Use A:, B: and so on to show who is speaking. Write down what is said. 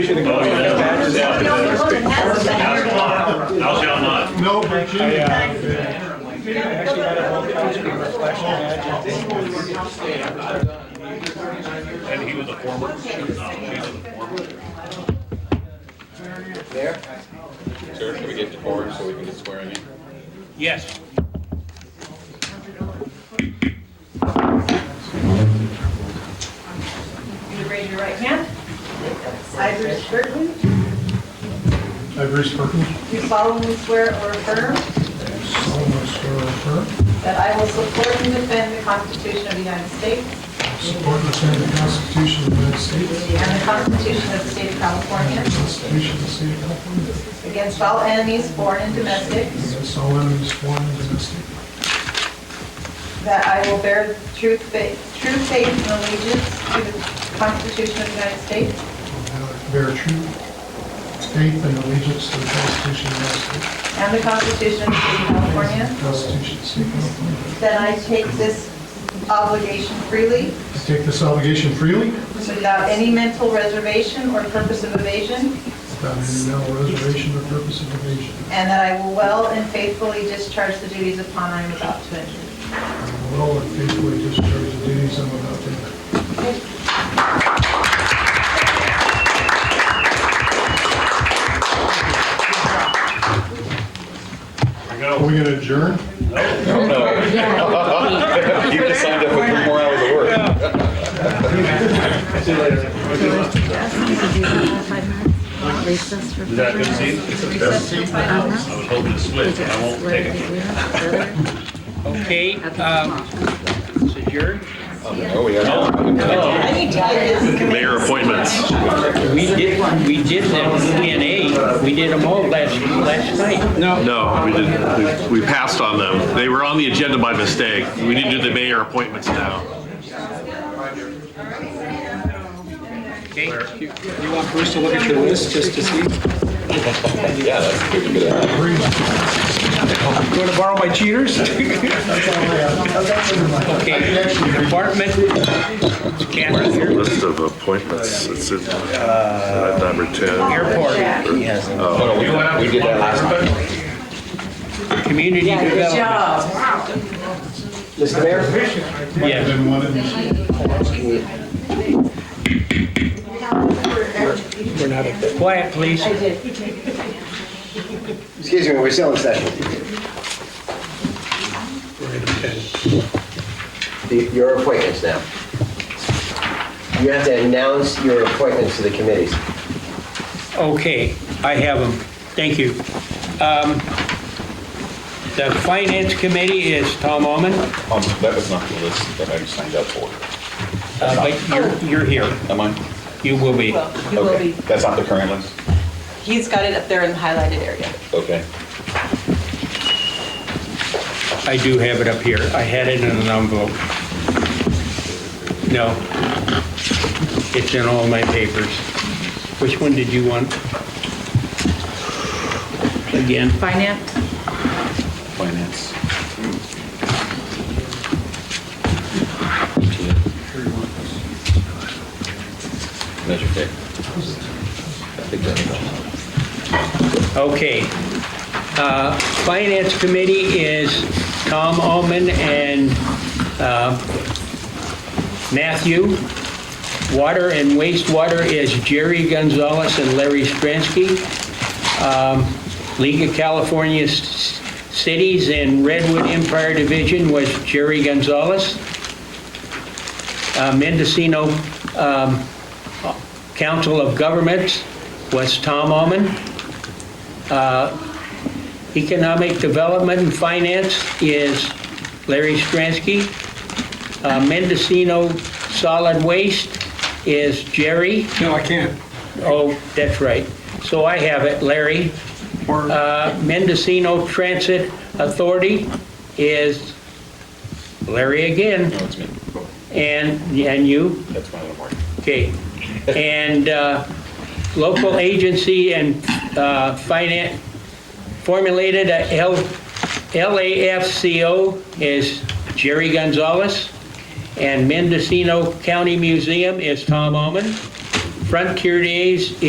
A: Oh, yeah.
B: No, it wasn't. That's the
C: How's it
B: better.
C: not? How's y'all not?
D: No, Virginia.
C: And he was a former, no, she was a former.
E: Sir, should we get to board so we can get swearing in?
C: Yes.
B: You raise your right hand. I, Bruce Burton,
D: I, Bruce Perkins,
B: do solemnly swear or affirm
D: solemnly swear or affirm,
B: that I will support and defend the Constitution of the United States
D: I support and defend the Constitution of the United States,
B: and the Constitution of the State of California
D: the Constitution of the State of California,
B: against all enemies, foreign and domestic,
D: against all enemies, foreign and domestic,
B: that I will bear true faith, true faith and allegiance to the Constitution of the United States
D: and I bear true faith and allegiance to the Constitution of the United States,
B: and the Constitution of the State of
D: the
B: California,
D: Constitution of the State of California.
B: that I take this obligation freely
D: I take this obligation freely,
B: without any mental reservation or purpose of evasion,
D: without any mental reservation or purpose of evasion,
B: And that I will well and faithfully discharge the duties upon I am about to enter.
D: and will and faithfully discharge the duties I'm about to enter.
C: There you
D: Are
C: go.
D: we going to adjourn?
E: No, no. You just signed up for three more hours of work.
F: Recess for
C: Is that a good seat? I was hoping to split, but I won't take it.
F: it.
G: Okay, um, it's adjourned.
E: No, we have.
B: I need to get this.
C: Mayor appointments.
G: We did, we did the E and A, we did them all last, last night. No.
C: No, we didn't. We we passed on them. They were on the agenda by mistake. We need to do the mayor appointments now.
G: Okay, you you want Bruce to look at your list just to see?
E: Yeah, that's a good idea.
G: Want to borrow my cheaters? Okay, department, Catherine, here.
H: List of appointments, it's in, at number oh, 10.
G: airport,
E: No, no, we did- We did that last time.
G: community development.
D: Mr. Mayor?
G: Yes.
D: Been one of these.
G: We're not, quiet, please.
I: Excuse me, we're still in session. The- Your appointments now. You have to announce your appointments to the committees.
G: Okay, I have them. Thank you. Um, The finance committee is Tom Omen, uh,
E: Um, That was not the list that I signed up for.
G: Uh, but you're, you're here.
E: Am I?
G: You will be.
B: You will
E: Okay.
B: be.
E: That's not the current list?
B: He's got it up there in the highlighted area.
E: Okay.
G: I do have it up here. I had it in an envelope. No. It's in all my papers. Which one did you want? Again?
F: Finance?
E: Finance. Measure K. I think that's-
G: Okay. Uh, Finance Committee is Tom Omen and uh, Matthew. Water and wastewater is Jerry Gonzalez and Larry Stransky. Um, League of California S- Cities and Redwood Empire Division was Jerry Gonzalez. Uh, Mendocino um, Council of Governments was Tom Omen. Economic Development and Finance is Larry Stransky. Uh, Mendocino Solid Waste is Jerry.
A: No, I can't.
G: Oh, that's right. So I have it, Larry. Uh, Mendocino Transit Authority is Larry again,
E: No, it's me.
G: and, and you,
E: That's my little mark.
G: okay. And uh, local agency and uh, finance, formulated a L- LAFCO is Jerry Gonzalez, and Mendocino County Museum is Tom Omen. Frontier Days